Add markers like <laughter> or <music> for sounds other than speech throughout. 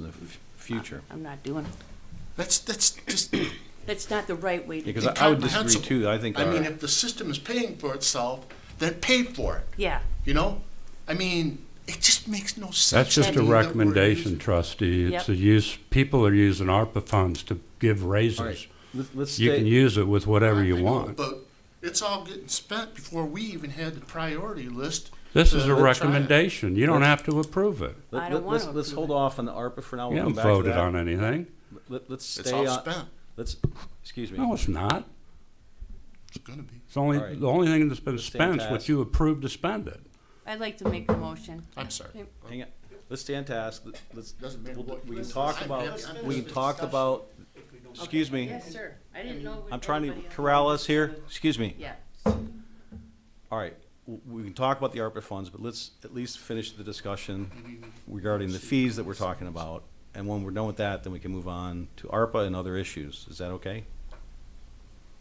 in the f- future. I'm not doing, That's, that's <clears throat> just, that's not the right way to, Because I I would disagree Incomprehensible. too, I think. I our- mean, if the system is paying for itself, then pay for it, yeah. you know? I mean, it just makes no sense. That's just to a me that we're recommendation, using- trustee. Yep. It's a use, people are using ARPA funds to give All right, raises. let- let's You can stay, use it with whatever you I know, want. But it's all getting spent before we even had the priority list. This to uh, is a try it. recommendation. You don't have to approve it. I let- don't let- let's, wanna let's approve hold it. off on the ARPA for now. You We'll come haven't back to voted on that. anything. Let- Let's It's stay all on, spent, let's, excuse me. No, it's not. it's gonna be. It's only, All right. the only thing that's been The same spent is task. what you approved to spend it. I'd like to make a motion. I'm sorry. Hang on, let's stay on task, Let- let's, Doesn't matter we'll- what- we can let's- talk I'm about, happy- I'm we just can talk discussing. about, excuse me, Yes, sir. I didn't know. I'm trying to corral us here, excuse me. Yeah. All right, w- we can talk about the ARPA funds, but let's at least finish the discussion regarding the fees that we're talking about. And when we're done with that, then we can move on to ARPA and other issues. Is that okay?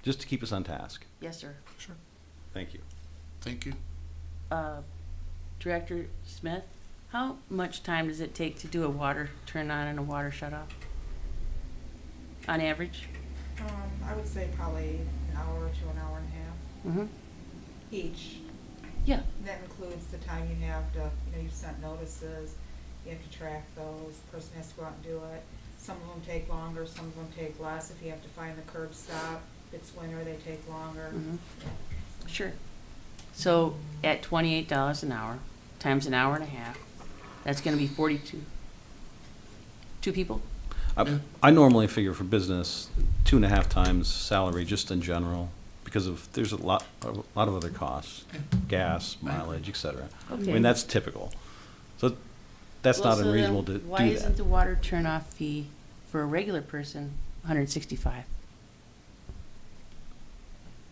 Just to keep us on task. Yes, sir. Sure, Thank you. thank you. Uh, Director Smith, how much time does it take to do a water turn on and a water shut off? On average? Um, I would say probably an hour to an hour and a half Mm-hmm. each. Yeah. That includes the time you have to, you know, you've sent notices, you have to track those, person has to go out and do it. Some of them take longer, some of them take less. If you have to find the curb stop, if it's winter, they take longer. Mhm. Sure. So at twenty-eight dollars an hour, times an hour and a half, that's gonna be forty-two. Two people? I- I normally figure for business, two and a half times salary, just in general, because of, there's a lot, a lot of other costs, gas, mileage, et cetera. I Okay. mean, that's typical. So that's not Well, so then unreasonable to do that. Why isn't the water turnoff fee for a regular person hundred and sixty-five?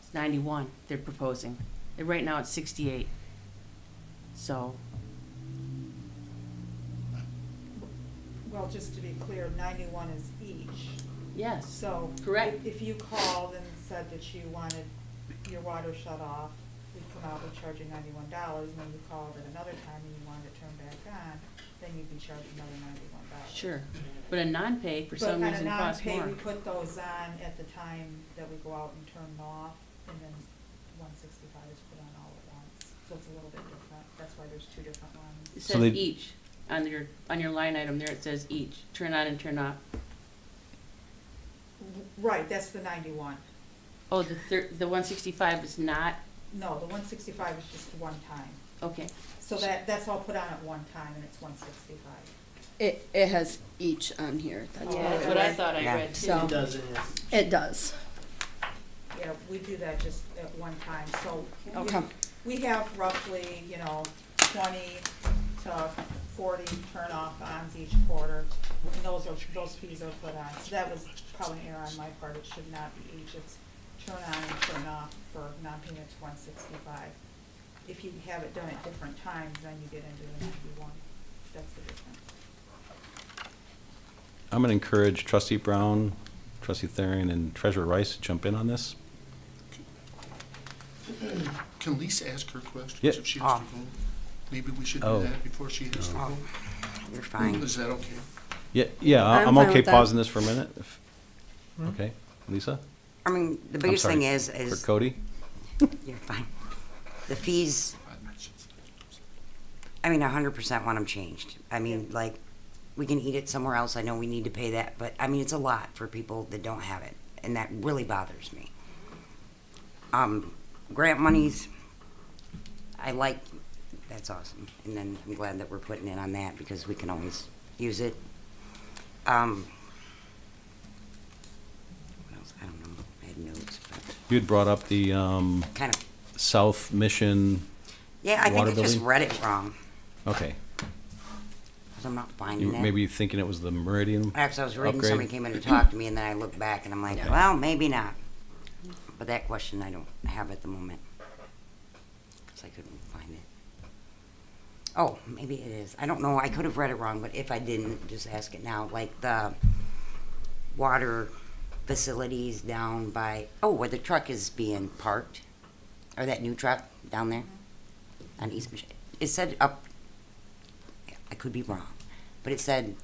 It's ninety-one they're proposing. And right now it's sixty-eight. So, Well, just to be clear, ninety-one is each. yes, So. Correct. If if you called and said that you wanted your water shut off, we'd come out and charge you ninety-one dollars, and then you called at another time and you wanted it turned back on, then you'd be charged another ninety-one dollars. sure. But a non-pay for some reason costs But on a non-pay, more. we put those on at the time that we go out and turn them off, and then one sixty-five is put on all at once. So it's a little bit different, that's why there's two different It ones. So says they- each, on your, on your line item there, it says each, turn on and turn off. Right, that's the ninety-one. Oh, the thir, the one sixty-five is not, No, the one sixty-five is just one time. okay. So that, that's all put on at one time, and it's one sixty-five. It, it has each on here. That's Yeah, what That's it what I is. thought I read too. So- It does. Yeah, we do that just at one time, so. we- Okay. We have roughly, you know, twenty to forty turn-off ons each quarter, and those are, those fees are put on. So that was probably an error on my part, it should not be each, it's turn on and turn off for non-payment it's one sixty-five. If you have it done at different times, then you get into the ninety-one, that's the difference. I'm going to encourage trustee Brown, trustee Thering, and treasurer Rice to jump in on this. Can Lisa ask her questions Yeah. if she has to go? Maybe we should Ah. Oh. do that before she has to go. Oh, You're fine. Is that okay? Yeah, yeah, I- I'm I'm fine okay with that. pausing this for a minute. if- Okay, Lisa? I mean, the biggest sorry. thing is, Or is, Cody? you're fine. The fees, I mean, hundred percent want them changed. I mean, like, we can eat it somewhere else. I know we need to pay that, but I mean, it's a lot for people that don't have it, and that really bothers me. Um, grant monies, I like, that's awesome. And then I'm glad that we're putting in on that because we can always use it. Um, what else? I don't know. I had notes, but You had brought up the um, kind of South Mission, Yeah, I think water I just building? read it wrong, okay. 'cause I'm not You- finding it. Maybe you're thinking it was the Meridian? Actually, I was reading, upgrade? somebody came in to talk to me, and then I looked back, and I'm like, Okay. well, maybe not. But that question I don't have at the moment, because I couldn't find it. Oh, maybe it is. I don't know. I could have read it wrong, but if I didn't, just ask it now. Like the water facilities down by, oh, where the truck is being parked, or that new truck down there on East Michigan. It said up, I could be wrong, but it said